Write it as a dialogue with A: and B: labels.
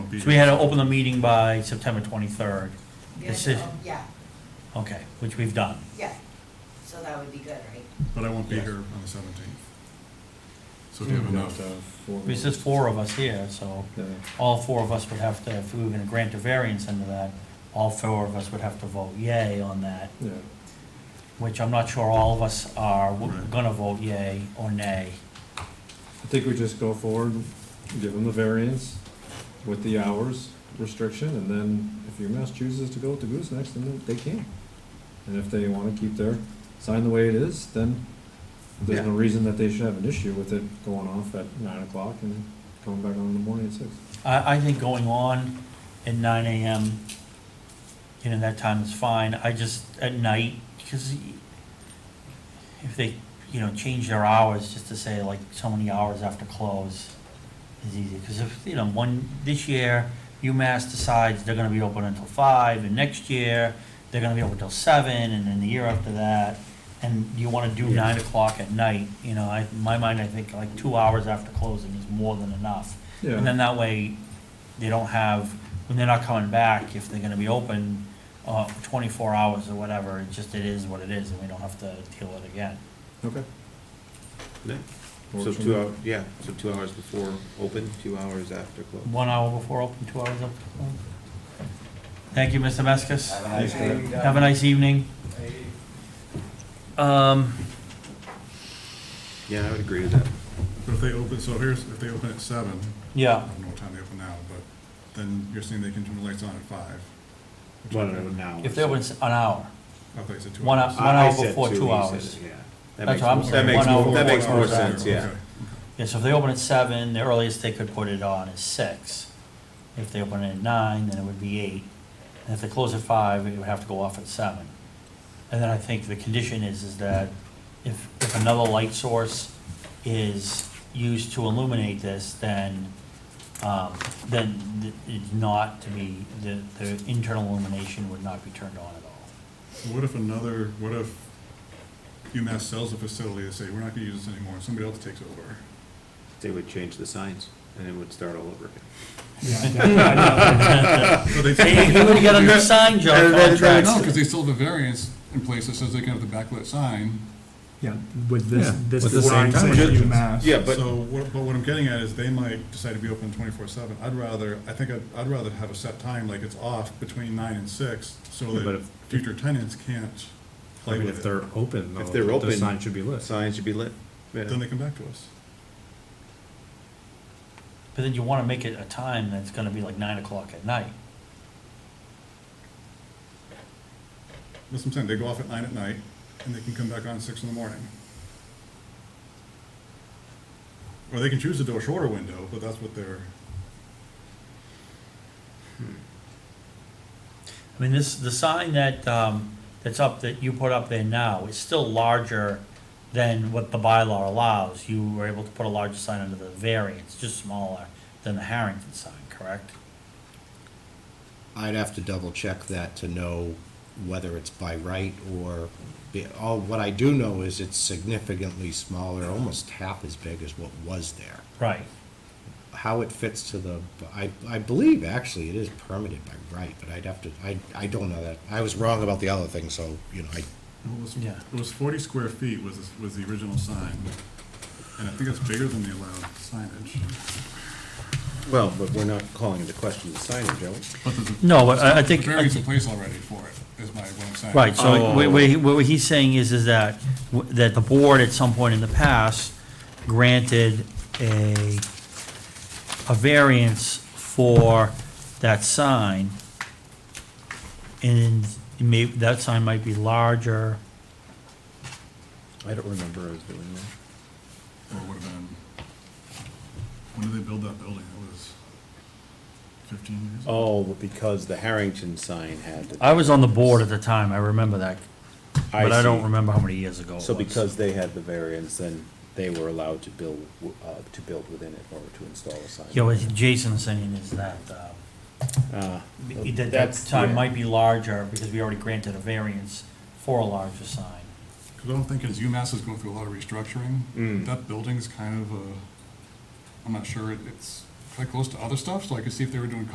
A: be.
B: So we had to open the meeting by September 23rd,
C: Yeah,
B: This is-
C: so- Yeah,
B: okay, which we've done.
C: yeah, so that would be good, right?
A: But I won't be
B: Yes.
A: here on the seventeenth. So
D: Hmm.
A: if you have
E: uh,
A: enough,
B: There's just four of us here, so all four of us would have to, if we were gonna grant a variance into that, all four of us would have to vote yay on that, which I'm not sure all of us are w-
A: Right.
B: gonna vote yay or nay.
E: I think we just go forward, give them the variance with the hours restriction, and then if UMass chooses to go to Goose Next, then they can. And if they wanna keep their sign the way it is, then there's no reason that they should have an issue with it going off at nine o'clock and coming back on in the morning at six.
B: I, I think going on at nine AM, you know, that time is fine, I just, at night, because if they, you know, change their hours, just to say like so many hours after close is easy, because if, you know, one, this year, UMass decides they're gonna be open until five, and next year, they're gonna be open till seven, and then the year after that, and you wanna do nine o'clock at night, you know, I, in my mind, I think like two hours after closing is more than enough. And then
E: Yeah,
B: that way, they don't have, when they're not coming back, if they're gonna be open, uh, twenty-four hours or whatever, it just, it is what it is, and we don't have to deal with it again.
E: okay.
D: Yeah. So
E: Works for
D: two
E: me.
D: hours, yeah, so two hours before open, two hours after close.
B: One hour before open, two hours after close. Thank you, Mr. Meskis. Have a nice evening. Um,
D: Yeah, I would agree with that.
A: but if they open, so here's, if they open at seven, I
B: yeah,
A: don't know what time they open now, but then you're saying they can turn the lights on at five. which
D: One
A: would
D: hour
A: be-
D: now.
B: if there was an hour,
A: I thought you said two
B: One
A: hours.
B: hour- one
D: I- I
B: hour
D: said
B: before two
D: he said
B: hours.
D: it, Yeah. That
B: That's
D: makes,
B: what I'm
D: more- that
B: saying,
D: makes,
B: one hour
D: more- that
B: before
D: makes more
B: hours
D: sense, yeah.
A: Okay.
B: yeah, so if they open at seven, the earliest they could put it on is six. If they open at nine, then it would be eight. And if they close at five, it would have to go off at seven. And then I think the condition is, is that if, if another light source is used to illuminate this, then, um, then th- it's not to be, the, the internal illumination would not be turned on at all.
A: What if another, what if UMass sells a facility, they say, we're not gonna use this anymore, and somebody else takes over?
D: They would change the signs and it would start all over again.
A: So they
B: Hey, you would get a new sign, John,
D: And then
B: contract.
A: No, because they still have a variance in place that says they can have the backlit sign.
F: Yeah, with this, this
A: with the same
F: design saying
A: time.
F: UMass.
D: Yeah, but,
A: So, what- but what I'm getting at is they might decide to be open twenty-four seven. I'd rather, I think I'd, I'd rather have a set time, like it's off between nine and six, so
F: Yeah, but
A: that
F: if-
A: future tenants can't
F: I
A: play
F: mean,
A: with
F: if
A: it.
F: they're open,
D: If
F: though,
D: they're
F: the
D: open,
F: sign should be lit.
D: signs should be lit. Yeah.
A: Then they come back to us.
B: But then you wanna make it a time that's gonna be like nine o'clock at night.
A: That's what I'm saying, they go off at nine at night, and they can come back on at six in the morning. Or they can choose to do a shorter window, but that's what they're,
B: I mean, this, the sign that, um, that's up, that you put up there now is still larger than what the bylaw allows. You were able to put a larger sign under the variance, just smaller than the Harrington sign, correct?
G: I'd have to double check that to know whether it's by right or, be- all, what I do know is it's significantly smaller, almost half as big as what was there.
B: Right.
G: How it fits to the, I, I believe actually it is permitted by right, but I'd have to, I, I don't know that. I was wrong about the other thing, so, you know, I,
A: it was,
B: Yeah.
A: it was forty square feet was, was the original sign. And I think it's bigger than the allowed signage.
D: Well, but we're not calling into question the signage, are we?
A: But there's a
B: No, but I, I
A: The
B: think,
A: variance in place already for it, is my, what I'm saying.
B: right,
D: Oh.
B: so what, what he- what he's saying is, is that, w- that the board at some point in the past granted a, a variance for that sign. And may, that sign might be larger.
D: I don't remember us doing that.
A: Or would have been, when did they build that building? It was fifteen years? ago.
D: Oh, because the Harrington sign had. the-
B: I was on the board at the time, I remember that, but I don't
D: see.
B: remember how many years ago it was.
D: So because they had the variance, then they were allowed to build, w- uh, to build within it or to install a sign.
B: Yeah, what Jason's saying is that, um,
D: Uh,
B: that that
D: that's-
B: sign
D: yeah.
B: might be larger, because we already granted a variance for a larger sign.
A: 'Cause what I'm thinking is UMass is going through a lot of restructuring.
D: Mm.
A: That building's kind of a, I'm not sure, it- it's quite close to other stuff, so I could see if they were doing